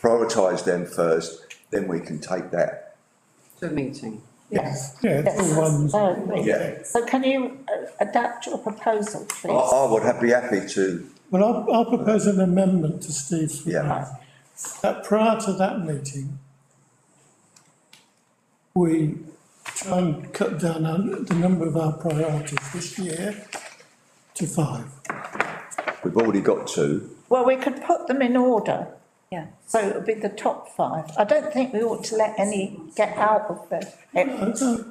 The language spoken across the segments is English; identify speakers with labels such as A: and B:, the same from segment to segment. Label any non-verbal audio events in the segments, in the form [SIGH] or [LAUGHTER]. A: prioritise them first, then we can take that.
B: to a meeting.
C: Yes.
D: Yeah, it's all ones.
C: So-
A: Yeah.
C: So can you uh, adapt your proposal,
A: I,
C: please?
A: I would have, be happy to,
D: Well, I'll, I'll propose an amendment to Steve's
A: Yeah.
D: reply. That prior to that meeting, we try and cut down on the number of our priorities this year to five.
A: we've already got two.
C: Well, we could put them in order,
E: Yeah.
C: so it would be the top five. I don't think we ought to let any get out of the,
D: Uh, so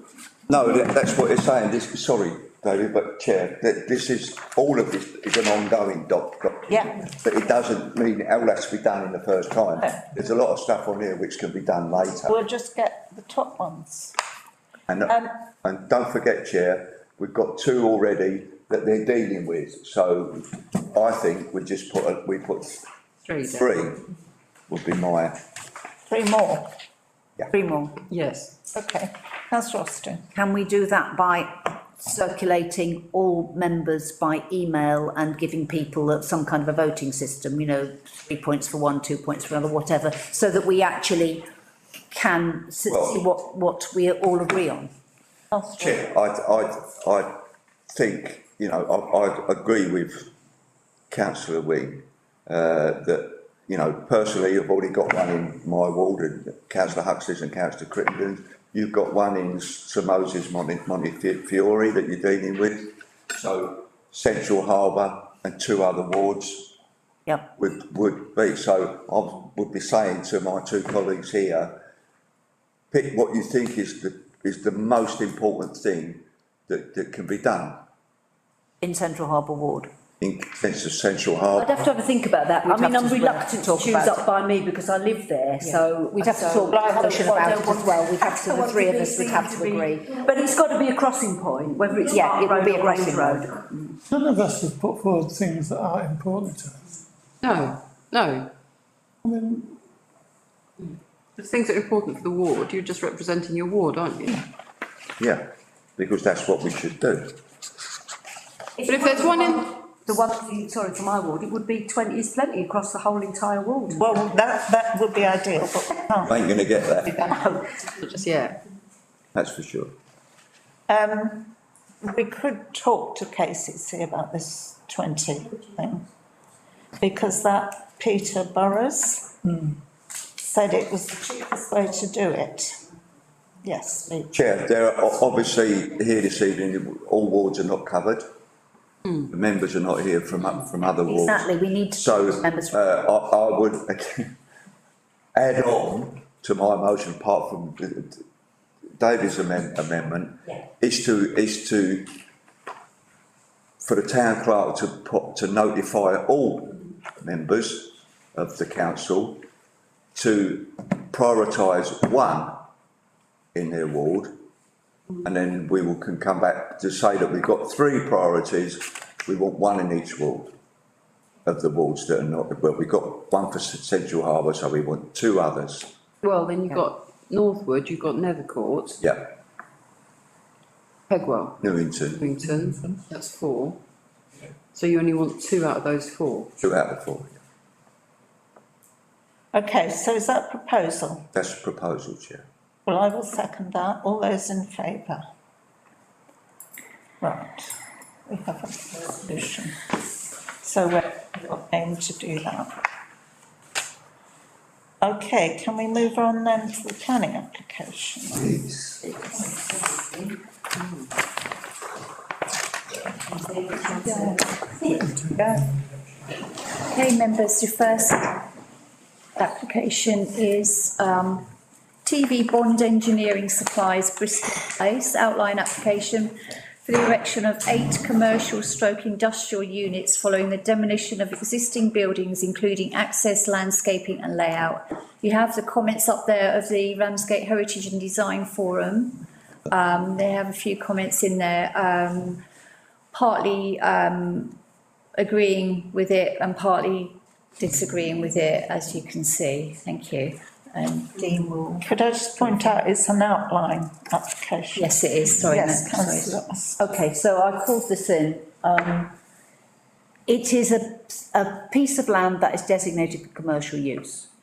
A: No, that, that's what it's saying, this, sorry, David, but Chair, that this is, all of this is an ongoing doc, doc.
C: Yeah.
A: But it doesn't mean it all has to be done in the first time.
C: No.
A: There's a lot of stuff on here which can be done later.
C: we'll just get the top ones.
A: And, uh,
C: Um,
A: and don't forget, Chair, we've got two already that they're dealing with, so I think we just put, a- we put
B: Three. then.
A: three would be my,
C: Three more,
E: Three more.
B: Yes,
C: okay. Councillor Austin,
E: Can we do that by circulating all members by email and giving people a- some kind of a voting system, you know, three points for one, two points for another, whatever, so that we actually can s- see
A: Well-
E: what, what we all agree on?
C: councillor.
A: I, I, I think, you know, I, I agree with councillor Wing, uh, that, you know, personally, I've already got one in my ward and councillor Huxley's and councillor Crittenden. You've got one in Sir Moses Monte, Montefiore that you're dealing with. So Central Harbour and two other wards
E: Yep,
A: would, would be, so I would be saying to my two colleagues here, pick what you think is the, is the most important thing that, that can be done
E: in Central Harbour Ward.
A: in sense of central
F: I'd
A: harbour.
F: have to have a think about that. I
E: We'd
F: mean,
E: have
F: I'm
E: to- we'd have
F: reluctant
E: to
F: to
E: talk
F: choose
E: about
F: up by me because I live there, so.
E: We'd have to
F: so-
E: talk
F: Well, I
E: about
F: haven't-
E: it
F: well, I
E: as
F: don't want-
E: well. We'd have to,
F: I
E: the
F: want
E: three of
F: these
E: us would
F: things
E: have to
F: be-
E: agree.
F: But it's got to be a crossing point, whether it's
E: Yeah,
F: Park
E: it would
F: Road
E: be a
F: or
E: crossing
F: Ring
E: road.
F: Road.
D: none of us have put forward things that are important to us.
B: no, no.
D: I mean,
B: The things that are important for the ward, you're just representing your ward, aren't you?
A: Yeah, because that's what we should do.
B: But if there's one in-
F: The one, thing- sorry, for my ward, it would be twenty is plenty across the whole entire ward.
C: Well, that, that would be ideal, but we can't.
A: I Ain't gonna get that,
B: Not Just, yeah.
A: that's for sure.
C: Um, we could talk to KCC about this twenty thing, because that Peter Burrows said it was the cheapest way to do it. Yes, we-
A: Chair, there are o- obviously here this evening, all wards are not covered. The members are not here from, o- from other wards.
E: Exactly, we need to
A: So,
E: talk to members.
A: uh, I, I would again, [LAUGHS] add on to my motion, apart from the- the- David's amend- amendment, is to, is to, for the town clerk to put, to notify all members of the council to prioritise one in their ward. And then we will, can come back to say that we've got three priorities, we want one in each ward of the wards that are not, well, we've got one for S- Central Harbour, so we want two others.
B: Well, then you've got Northwood, you've got Nethercourt,
A: Yeah,
B: Pegwell,
A: Newington,
B: Newington, that's four. So you only want two out of those four.
A: two out of four.
C: okay, so is that proposal?
A: That's the proposal, Chair.
C: Well, I will second that, all those in favour? Right, we have a resolution, so we're we'll aim to do that. Okay, can we move on then to the planning application?
A: Yes.
G: Okay, members, your first application is um, TV Bond Engineering Supplies Bristol Place outline application for the erection of eight commercial stroke industrial units following the demolition of existing buildings, including access, landscaping and layout. You have the comments up there of the Ramsgate Heritage and Design Forum. Um, They have a few comments in there, um, partly uh, agreeing with it and partly disagreeing with it, as you can see. Thank you. And Dean will,
C: Could I just point out, it's an outline application?
G: yes, it is, sorry.
C: Yes,
G: Matt, sorry.
C: councillor Austin.
E: Okay, so I called this in, um, it is a, a piece of land that is designated for commercial use.